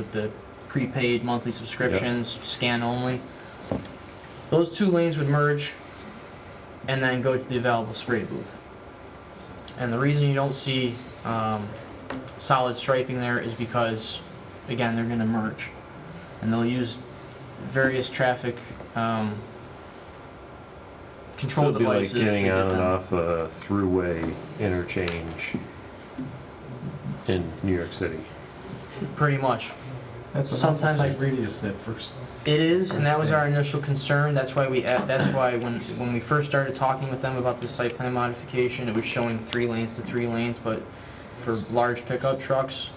with the prepaid monthly subscriptions, scan only. Those two lanes would merge and then go to the available spray booth. And the reason you don't see um, solid striping there is because, again, they're gonna merge. And they'll use various traffic um, So control it'd be like devices to get getting on and them- off a throughway interchange in New York City. Pretty much. That's an Sometimes awful I- tight radius, that first, It is, and that was our initial concern, that's why we, add- that's why when, when we first started talking with them about the site plan modification, it was showing three lanes to three lanes, but for large pickup trucks,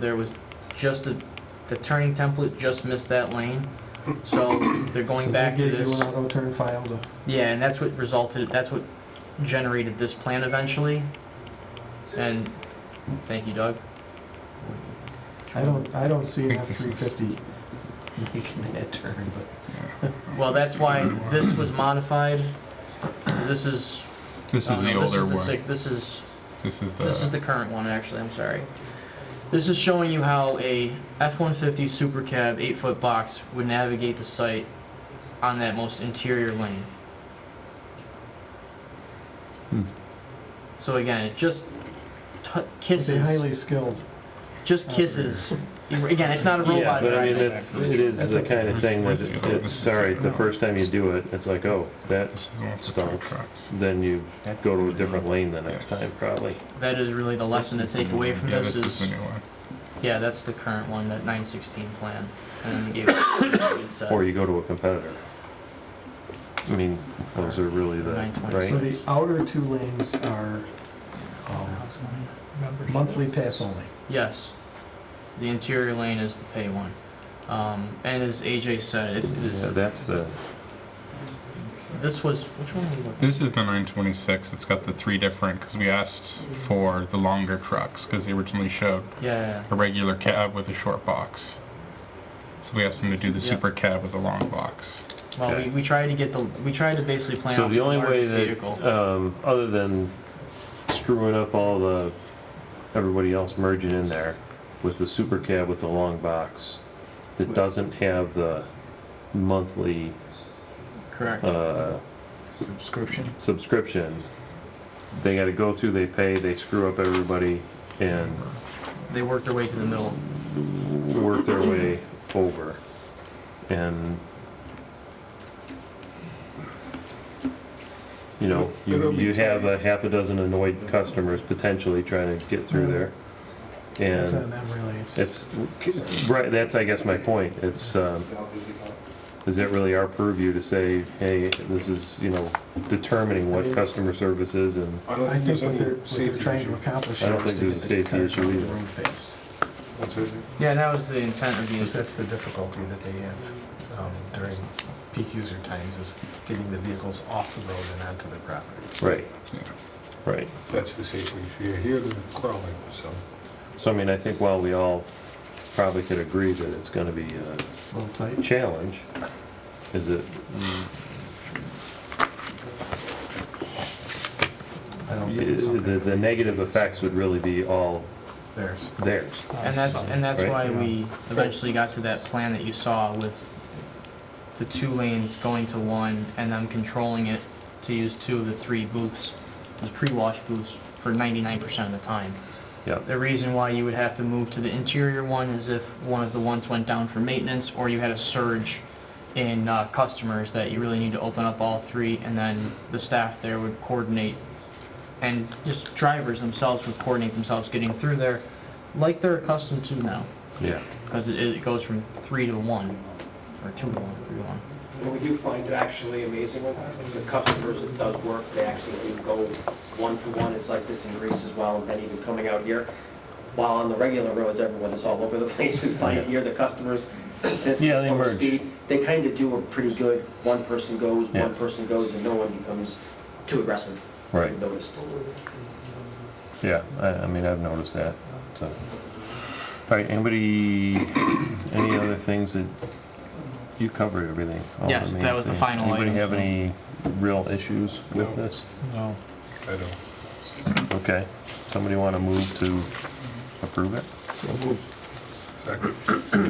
there was just a, the turning template just missed that lane, so they're going so back they to gave you this. an auto turn file to, Yeah, and that's what resulted, that's what generated this plan eventually, and, thank you Doug. I don't, I don't see an F-350 making that turn, but Well, that's why this was modified, this is This is Oh, the no, this older is the one. sick- This is, This is the. this is the current one, actually, I'm sorry. This is showing you how a F-150 Super Cab 8-foot box would navigate the site on that most interior lane. Hmm. So again, it just t- they're kisses, highly skilled. just kisses. Again, it's not a robot But I mean, driving. it's, it is That's the like kind of Bruce thing that Springsteen. it- it's, all right, the first time you do it, it's like, oh, that This is the one with the tow stunk. trucks. Then you go to a different lane the next Yes. time, probably. That is really the lesson to This is the take new away one. from yeah, this is the is, new one. yeah, that's the current one, that 916 plan. And then they gave it, it's, uh, Or you go to a competitor. I mean, those are really the, 926. So right? the outer two lanes are um, monthly pass only. Yes. The interior lane is the pay one. Um, and as AJ said, it's, it's, Yeah, that's the, this was, which one are you looking This is the 926. It's got the three different because we asked for the longer trucks because they originally showed Hmm. at? Yeah, a regular cab with a short box. So we asked them to do the Yeah. super cab with a long box. well, we, we tried to get the, we tried to basically plan so off the the only way largest vehicle. that, um, other than screwing up all the, everybody else merging in there with the super cab with the long box that doesn't have the monthly, Correct. uh, Subscription? subscription, they gotta go through, they pay, they screw up everybody and They worked their way to the middle. work their way over. And, you know, you, It'll be you have a half a dozen annoyed customers potentially trying to get through there. It's on And them really. It's- it's, right, that's, I guess, my point. It's, um, is it really our purview to say, hey, this is, you know, determining what customer service is and I don't I think there's what any they're, what they're safety trying issue. to accomplish. I don't here think is to there's a get safety this car issue off the either. road fast. What's it? Yeah, and that was the intent of the, Because that's the difficulty that they have um, during peak user times is getting the vehicles off the road and onto the property. Right, Yeah. right. That's the safety issue. You hear them crawling, so. So I mean, I think while we all probably could agree that it's gonna be uh, a A little tight. challenge, is it, I don't think it's the, something the negative effects would really be all theirs. theirs. and that's, and that's Right. why we eventually got to that plan that you saw with the two lanes going to one and them controlling it to use two of the three booths, the pre-wash booths, for ninety-nine percent of the time. Yeah, The reason why you would have to move to the interior one is if one of the ones went down for maintenance, or you had a surge in uh, customers that you really need to open up all three, and then the staff there would coordinate, and just drivers themselves would coordinate themselves getting through there, like they're accustomed to now, yeah. because it, it goes from three to one, or two to one, three to one. What we do find it actually amazing with the customers, it does work, they actually do go one for one, it's like this in Greece as well, and then even coming out here. While on the regular roads, everyone is all over the place, we find here the customers, since Yeah, the they slower merge. speed, they kind of do a pretty good, one person goes, Yeah. one person goes, and no one becomes too aggressive. Right. I've Noticed. Yeah, I, I mean, I've noticed that, so. All right, anybody, any other things that, you covered everything? all the Yes, that main was the things. final item, Anybody have so. any real issues with No. this? I don't. Okay, somebody want to move to approve it? Second.